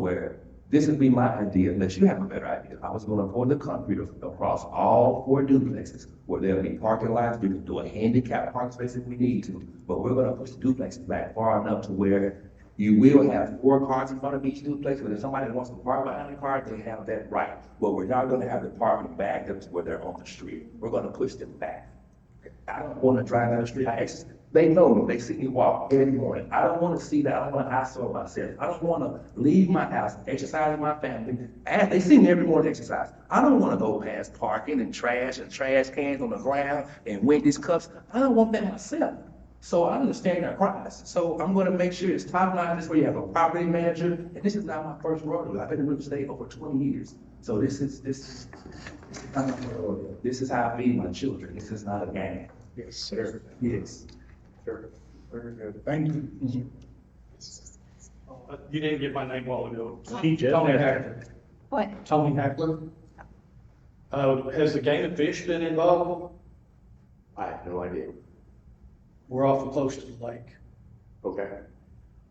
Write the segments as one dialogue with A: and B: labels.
A: where this would be my idea, unless you have a better idea. I was gonna pour the concrete across all four duplexes, where there'll be parking lots, we can do a handicap parking space if we need to, but we're gonna push the duplexes back far enough to where you will have four cars in front of each duplex, but if somebody wants to park behind the car, they have that right. But we're not gonna have the parking back up to where they're on the street, we're gonna push them back. I don't wanna drive down the street, I actually, they know me, they see me walk every morning, I don't wanna see that, I don't wanna isolate myself, I don't wanna leave my house, exercise with my family, and they see me every morning exercise. I don't wanna go past parking and trash and trash cans on the ground and Wendy's cups, I don't want that myself. So I understand their cries, so I'm gonna make sure it's top line, this is where you have a property manager, and this is not my first rodeo, I've been in real estate over twenty years. So this is, this, this is how I feed my children, this is not a game.
B: Yes, sir.
A: Yes.
B: Sure. Very good. Thank you.
C: Uh, You didn't get my name while ago.
B: He just-
C: Tony Hackler.
D: What?
C: Tony Hackler. Uh, has the game of fish been involved?
E: I have no idea.
C: We're awful close to the lake.
E: Okay.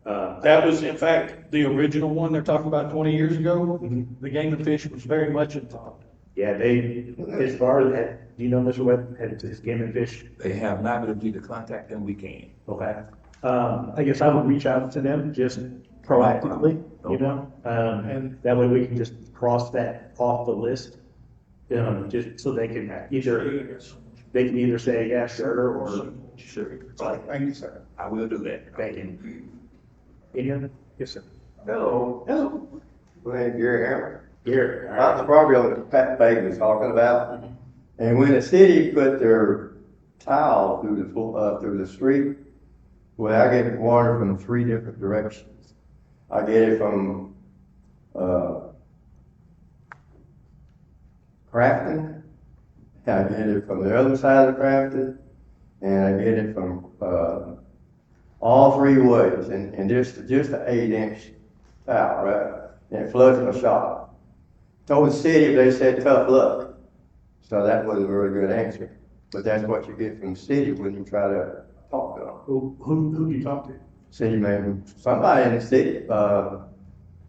E: Uh,
C: That was in fact the original one they're talking about twenty years ago. The game of fish was very much involved.
E: yeah, they, as far as that, do you know Mr. Webb had his game and fish?
A: They have not been able to contact them, we can.
E: Okay. Um, I guess I would reach out to them just proactively, you know? Um, and that way we can just cross that off the list. Um, just so they can either, they can either say, yeah, sure, or
A: Sure.
B: Thank you, sir.
A: I will do that.
E: they can. Any other? Yes, sir.
F: Hello,
E: Hello.
F: my name's Gary Hammer.
E: Here. all
F: I'm the
E: right.
F: property owner that Pat Fagan was talking about. And when the city put their tile through the, full- uh, through the street, well, I get water from three different directions. I get it from, uh, Crafton, I get it from the other side of Crafton, and I get it from, uh, all three ways, and, and just, just an eight inch tile, right? And it floods my shop. Told the city, they said tough luck. So that wasn't a very good answer. But that's what you get from the city when you try to talk to them.
E: Who, who, who do you talk to?
F: City man, somebody in the city, uh,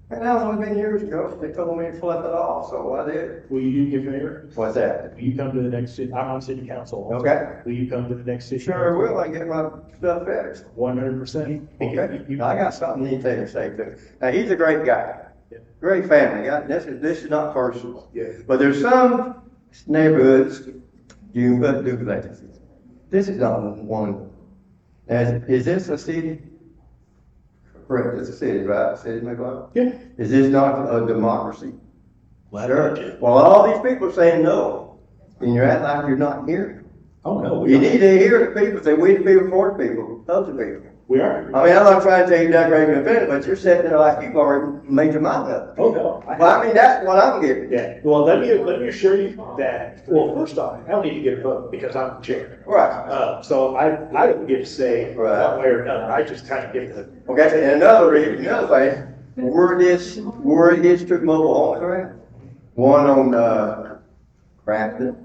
F: and that was only been years ago, they told me to flip it off, so I did.
E: Will you do me a favor?
F: What's that?
E: Will you come to the next city, I'm on city council. also.
F: Okay.
E: Will you come to the next city?
F: Sure will, I get my stuff fixed.
E: One hundred percent.
F: Okay, I got something you need to take a say too. Now, he's a great guy, great family guy, this is, this is not personal.
E: Yeah.
F: But there's some neighborhoods, you but do that. This is not one. And is this a city? Correct, it's a city, right, city McGuire?
E: Yeah.
F: Is this not a democracy? Sure, well, all these people saying no, and you're acting like you're not here.
E: Oh, no,
F: You
E: we are.
F: need to hear the people, say we the people, for the people, of the people.
E: We are.
F: I mean, I'm not trying to tell you that great of event, but you're sitting there like you've already made your mind up.
E: Oh, no. I-
F: Well, I mean, that's what I'm getting.
E: Yeah, well, let me, let me assure you that, well, first off, I don't need to get a vote because I'm the chair.
F: Right.
E: Uh, so I, I don't get to say
F: Right.
E: one way or another. I just kind of get the,
F: Okay, and another reason, another thing, where it is, where it is to mobile home, correct? One on, uh, Crafton,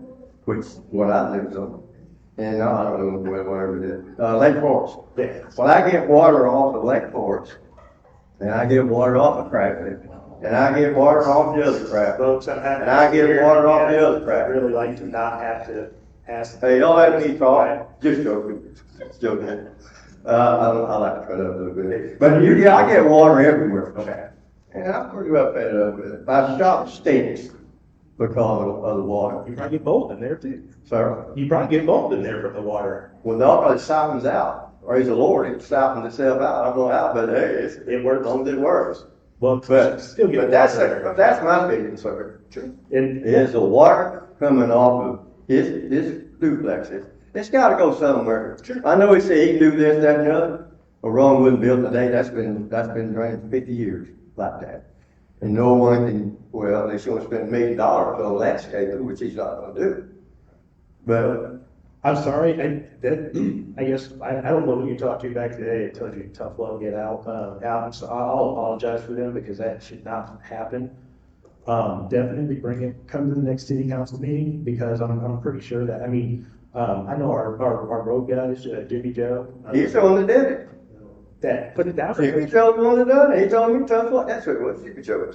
F: which, what I live on, and uh, I don't know, whatever it is, uh, Lake Forest.
E: the,
F: When I get water off of Lake Forest, and I get water off of Crafton, and I get water off the other crap.
E: folks, I'm happy.
F: And I get water off the other crap.
E: I'd really like to not have to ask.
F: Hey, don't let me talk, just joking, Just joking. Uh, I, I like to cut up a little bit, but you, yeah, I get water everywhere from that. And I'm pretty well fed up with it. My shop stinks because of, of the water,
E: You probably get bold in there too.
F: sir.
E: You probably get bold in there from the water.
F: When the water softens out, praise the Lord, it softens itself out, I don't know how, but hey, it's,
E: It
F: as
E: works.
F: long as it works.
E: Well,
F: But,
E: still get.
F: but that's,
E: water
F: a-
E: in there.
F: that's my opinion, sir.
E: And,
F: Is the water coming off of his, his duplexes? It's gotta go somewhere. I know he said he can do this, that, and the other, but Rome wouldn't build today, that's been, that's been drained for fifty years like that. And no one can, well, they should spend a million dollars on landscaping, which he's not gonna do. But,
E: I'm sorry, I, that, I guess, I, I don't know who you talked to back today, it told you tough love, get out, uh, out, so I- I'll apologize for them, because that should not happen. Um, definitely bring it, come to the next city council meeting, because I'm, I'm pretty sure that, I mean, um, I know our, our, our road guys, uh, Jimmy Joe. uh,
F: he's the one that did it.
E: that, but that was.
F: Chippy Joe wanted it done, he told me tough luck, that's what it was, Chippy Joe.